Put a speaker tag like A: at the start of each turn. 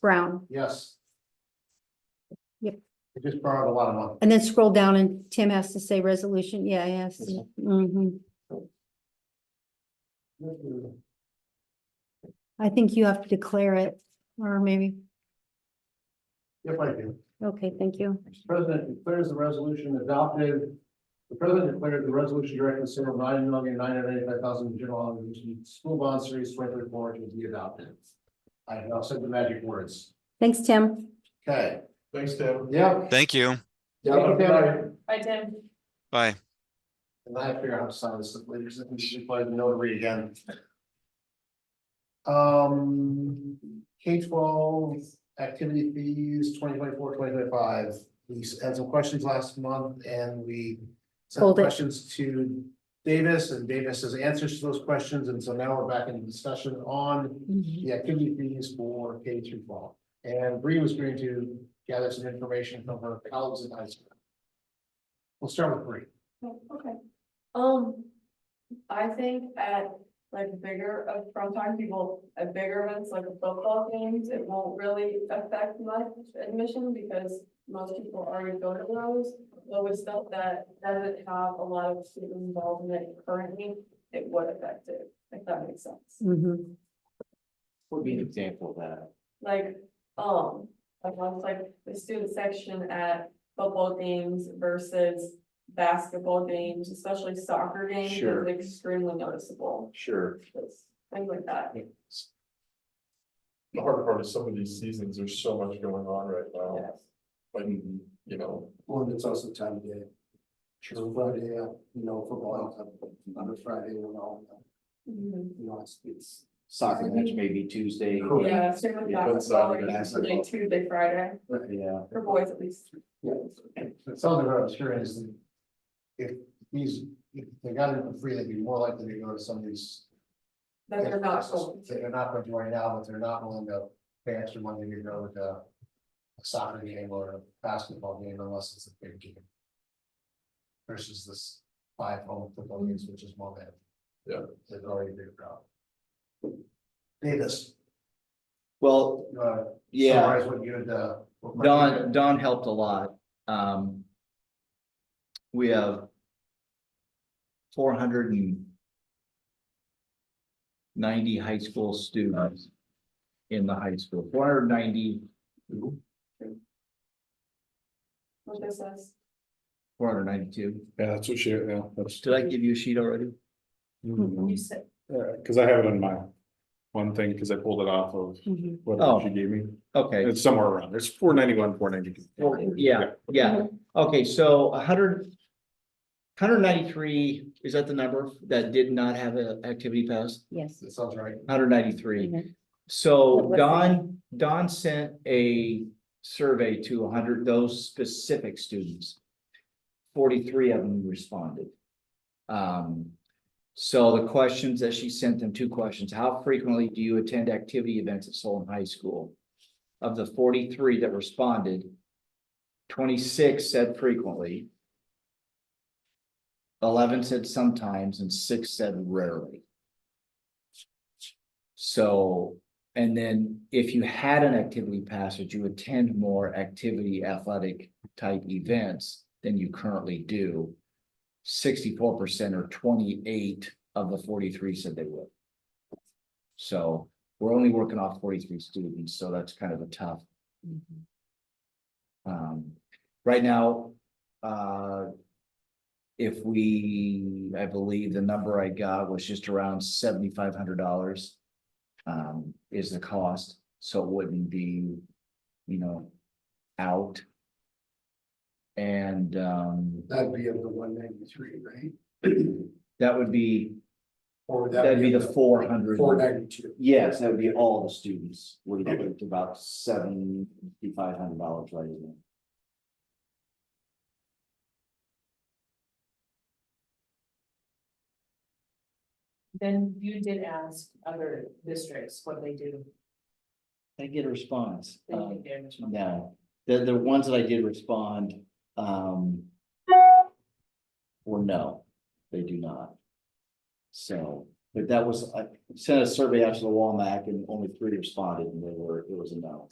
A: Brown.
B: Yes.
A: Yep.
B: I just borrowed a lot of money.
A: And then scroll down and Tim has to say resolution. Yeah, yes. Mhm. I think you have to declare it or maybe,
B: If I do,
A: okay, thank you.
B: Mr. President declares the resolution adopted. The president declared the resolution directing the sale of nine million nine hundred eighty-five thousand general obligation school bond series twenty-three four to be adopted. I have now said the magic words.
A: Thanks, Tim.
B: Okay.
C: Thanks, Deb.
B: Yeah.
D: Thank you.
B: Yeah, okay.
E: Bye, Tim.
D: Bye.
B: And I have to figure out how to sign this later, because we should play the notary again. Um, K twelve activity fees, 2024, 2025. We had some questions last month and we. Sent
A: Hold it.
B: questions to Davis and Davis has answers to those questions, and so now we're back in discussion on the activity fees for K through twelve. And Bree was going to gather some information from her colleagues in high school. We'll start with Bree.
E: Okay. Um, I think at like bigger, uh, from time people, at bigger events like football games, it won't really affect much admission because most people already go to those. But with stuff that doesn't have a lot of student involvement currently, it would affect it, if that makes sense.
A: Mhm.
F: Would be an example of that.
E: Like, um, like once like the student section at football games versus basketball games, especially soccer games,
F: Sure.
E: is extremely noticeable.
F: Sure.
E: Just Things like that.
C: The hard part is some of these seasons, there's so much going on right now,
E: Yes.
C: but, you know,
B: Well, and it's also time of day. Sure, Friday, uh, you know, football, uh, on a Friday, you know,
E: Mhm.
B: you know, it's, it's.
F: Soccer match maybe Tuesday.
B: Correct.
E: Yeah, same with
C: Yeah, that's
E: basketball,
C: Saturday,
E: like usually
F: basketball.
E: Tuesday, Friday,
F: Yeah,
E: for boys at least.
B: Yeah. Something that I'm sure is. If these, if they got it for free, they'd be more likely to go to some of these.
E: That they're not going
B: that They're
E: to.
B: not going to right now, but they're not willing to pay extra money to go to. A soccer game or a basketball game unless it's a big game. Versus this five home football games, which is more than.
C: Yeah.
B: There's already a big crowd. Davis,
F: well,
B: you wanna
F: yeah,
B: uh, Summarize what you had, uh. what Mike
F: Don,
B: had.
F: Don helped a lot. Um. We have. Four hundred and ninety high school students. In the high school, four hundred and ninety,
E: What this is.
F: four hundred and ninety-two.
G: Yeah, that's what she, yeah, that's, Hmm.
F: Did I give you a sheet already?
A: Mm-hmm.
E: You said,
G: yeah, cause I have it on my one thing, cause I pulled it off of
A: Mhm.
F: Oh.
G: what she gave me.
F: Okay.
G: It's somewhere around, it's four ninety-one, four ninety-two.
F: Well, yeah, yeah, okay, so a hundred. Hundred ninety-three, is that the number that did not have an activity pass?
A: Yes.
B: That sounds right.
F: Hundred ninety-three,
A: Mhm.
F: so
A: What's the-
F: Don, Don sent a survey to hundred, those specific students. Forty-three of them responded. Um, so the questions that she sent them, two questions, how frequently do you attend activity events at Solon High School? Of the forty-three that responded, twenty-six said frequently. Eleven said sometimes and six said rarely. So, and then if you had an activity pass, would you attend more activity athletic type events than you currently do? Sixty-four percent or twenty-eight of the forty-three said they would. So we're only working off forty-three students, so that's kind of a tough. Um, right now, uh. If we, I believe the number I got was just around seventy-five hundred dollars. Um, is the cost, so it wouldn't be, you know, out. And, um,
B: That'd be of the one ninety-three, right?
F: that would be,
B: Or would that
F: that'd be the four
B: Four ninety-two.
F: Yes, that would be all the students, we're looking at about seventy-five hundred dollars right now.
H: Then you did ask other districts what they do.
F: I get a response.
H: They do
F: um,
H: damage control.
F: No, the, the ones that I did respond, um. Were no, they do not. So, but uh, that was, I sent a survey out to the Walmart and only three responded and they were, it was a no.